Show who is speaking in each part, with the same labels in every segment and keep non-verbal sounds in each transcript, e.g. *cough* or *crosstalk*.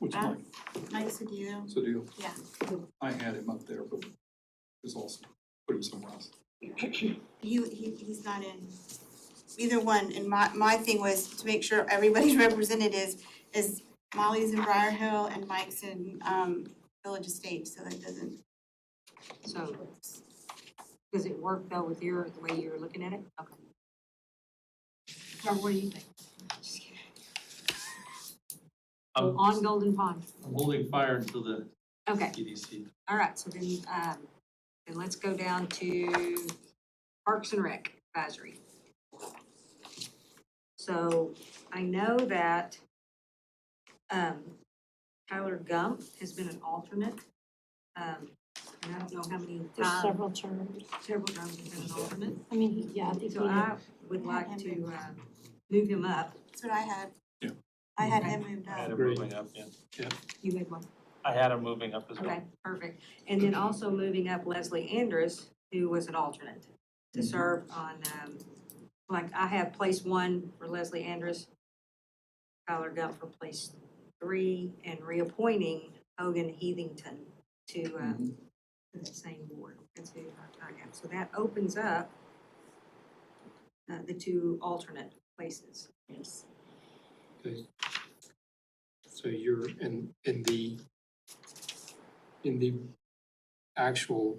Speaker 1: was
Speaker 2: Uh,
Speaker 1: Mike,
Speaker 2: Mike Sudilo.
Speaker 1: Sadil.
Speaker 2: yeah.
Speaker 1: I had him up there, but was also put him somewhere else.
Speaker 2: You, he, he's not in either one, and my, my thing was to make sure everybody's *laughs* represented is, is Molly's in Briar Hill and Mike's in, um, Village Estate, so that doesn't,
Speaker 3: So, does it work though with your, the way you're looking at it? Okay. Or what do you think? Just kidding.
Speaker 4: I'm,
Speaker 3: On Golden Pond,
Speaker 4: Um, I'm holding fire until the
Speaker 3: okay,
Speaker 4: EDC.
Speaker 3: all right, so then, um, then let's go down to Parks and Rec Advisory. So I know that, um, Tyler Gump has been an alternate. Um, and I don't know how many
Speaker 5: There's
Speaker 3: times,
Speaker 5: several terms.
Speaker 3: several times he's been an alternate.
Speaker 5: I mean, he- yeah, I think
Speaker 3: So
Speaker 5: he-
Speaker 3: I would like to uh, move him up.
Speaker 2: that's what I had.
Speaker 1: Yeah.
Speaker 2: I had him moved
Speaker 4: I had
Speaker 2: up.
Speaker 4: him
Speaker 1: Agreed.
Speaker 4: moving up, yeah.
Speaker 3: You had one.
Speaker 4: I had him moving up as well.
Speaker 3: Okay, perfect. And then also moving up Leslie Andrus, who was an alternate,
Speaker 1: Mm-hmm.
Speaker 3: to serve on, um, like, I have place one for Leslie Andrus, Tyler Gump for place three, and reappointing Hogan Heathington to
Speaker 1: Mm-hmm.
Speaker 3: um, to that same board. That's who I have. So that opens up uh, the two alternate places. Yes.
Speaker 6: So you're in, in the, in the actual,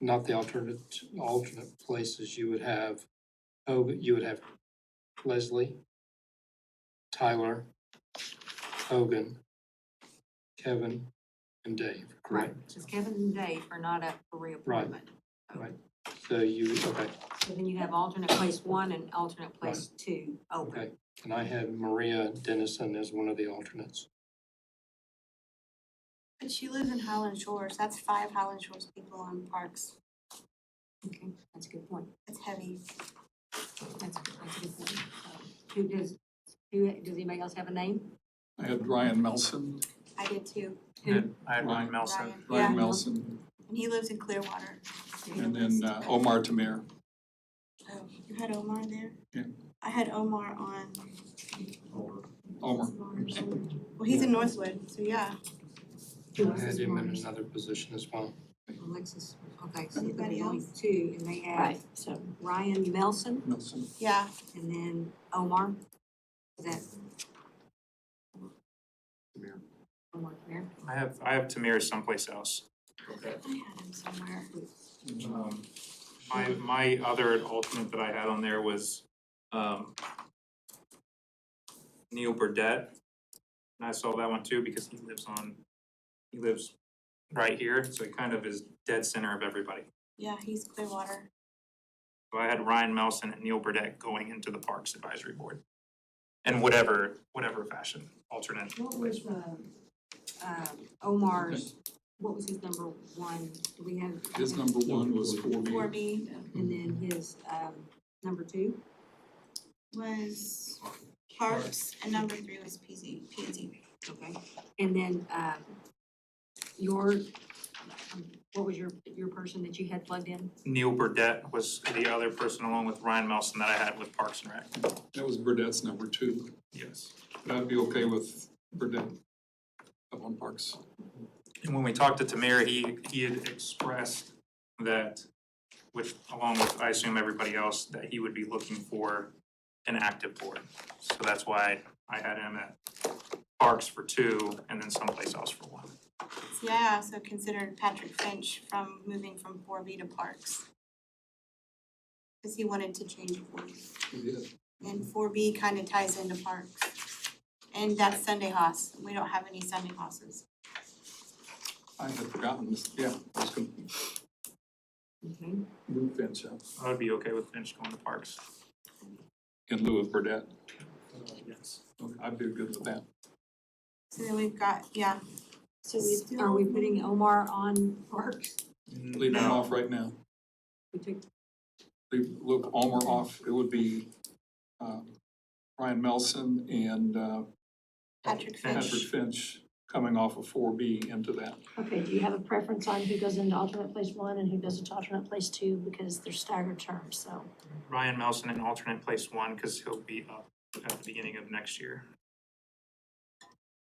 Speaker 6: not the alternate, alternate places, you would have, oh, you would have Leslie, Tyler, Hogan, Kevin, and Dave,
Speaker 3: Right,
Speaker 6: correct?
Speaker 3: because Kevin and Dave are not up for reappointment.
Speaker 6: So you, okay,
Speaker 3: So then you have alternate place one and alternate place two open.
Speaker 6: okay. And I had Maria Dennison as one of the alternates.
Speaker 2: But she lives in Highland Shores, that's five Highland Shores people on parks,
Speaker 3: Okay, that's a good point.
Speaker 2: that's heavy.
Speaker 3: That's, that's a good point. Um, Who does, who, does anybody else have a name?
Speaker 1: I had Ryan Melson,
Speaker 2: I did too,
Speaker 4: And I had
Speaker 1: Ryan
Speaker 4: Ryan Melson.
Speaker 2: Ryan,
Speaker 1: Ryan
Speaker 2: yeah,
Speaker 1: Melson,
Speaker 2: and he lives in Clearwater.
Speaker 1: and then uh, Omar Tamir.
Speaker 2: Oh, you had Omar there?
Speaker 1: Yeah.
Speaker 2: I had Omar on.
Speaker 1: Omar,
Speaker 2: Well, he's in Northwood, so yeah.
Speaker 3: Who
Speaker 6: I
Speaker 3: else
Speaker 6: had
Speaker 3: is
Speaker 6: him in
Speaker 3: Marcus?
Speaker 6: another position as well.
Speaker 3: Alexis, okay, so
Speaker 2: Anybody
Speaker 3: there's only
Speaker 2: else?
Speaker 3: two, and they have
Speaker 5: right, so.
Speaker 3: Ryan Melson
Speaker 1: Melson,
Speaker 2: Yeah,
Speaker 3: and then Omar. Is that
Speaker 1: Tamir.
Speaker 3: Omar there?
Speaker 7: I have, I have Tamir someplace else.
Speaker 2: I had him somewhere.
Speaker 7: Um, My, my other alternate that I had on there was, um, Neil Burdette. And I saw that one too, because he lives on, he lives right here, so he kind of is dead center of everybody.
Speaker 2: Yeah, he's Clearwater.
Speaker 7: So I had Ryan Melson and Neil Burdette going into the Parks Advisory Board. In whatever, whatever fashion, alternate.
Speaker 3: What was, um, um, Omar's, what was his number one? Do we have?
Speaker 1: his number one was four B.
Speaker 2: Four B
Speaker 3: And then his, um, number two?
Speaker 2: was Parks, and number three was PZ, PZ.
Speaker 3: Okay, and then, um, your, um, what was your, your person that you had plugged in?
Speaker 7: Neil Burdette was the other person along with Ryan Melson that I had with Parks and Rec.
Speaker 1: That was Burdett's number two,
Speaker 7: Yes.
Speaker 1: but I'd be okay with Burdette up on Parks.
Speaker 7: And when we talked to Tamir, he, he had expressed that, which along with, I assume, everybody else, that he would be looking for an active board. So that's why I had him at Parks for two and then someplace else for one.
Speaker 2: See, I also considered Patrick Finch from moving from four B to Parks. Cause he wanted to change boards,
Speaker 1: Yeah,
Speaker 2: and four B kinda ties into Parks. And that's Sunday Haas, we don't have any Sunday Hosses.
Speaker 1: I had forgotten this, yeah, I was gonna
Speaker 3: Okay.
Speaker 1: move Finch up
Speaker 7: I would be okay with Finch going to Parks.
Speaker 1: in lieu of Burdette.
Speaker 7: Yes.
Speaker 1: Okay, I'd be good with that.
Speaker 2: So then we've got, yeah,
Speaker 5: So we,
Speaker 3: Are we putting Omar on parks?
Speaker 1: Leave him
Speaker 7: Mm, No,
Speaker 1: off right now.
Speaker 3: We took,
Speaker 1: leave, look, Almer off, it would be, uh, Ryan Melson and, uh,
Speaker 2: Patrick Finch.
Speaker 1: Patrick Finch coming off of four B into that.
Speaker 5: okay, do you have a preference on who goes into alternate place one and who goes into alternate place two? Because they're staggered terms, so.
Speaker 7: Ryan Melson in alternate place one, because he'll be up at the beginning of next year.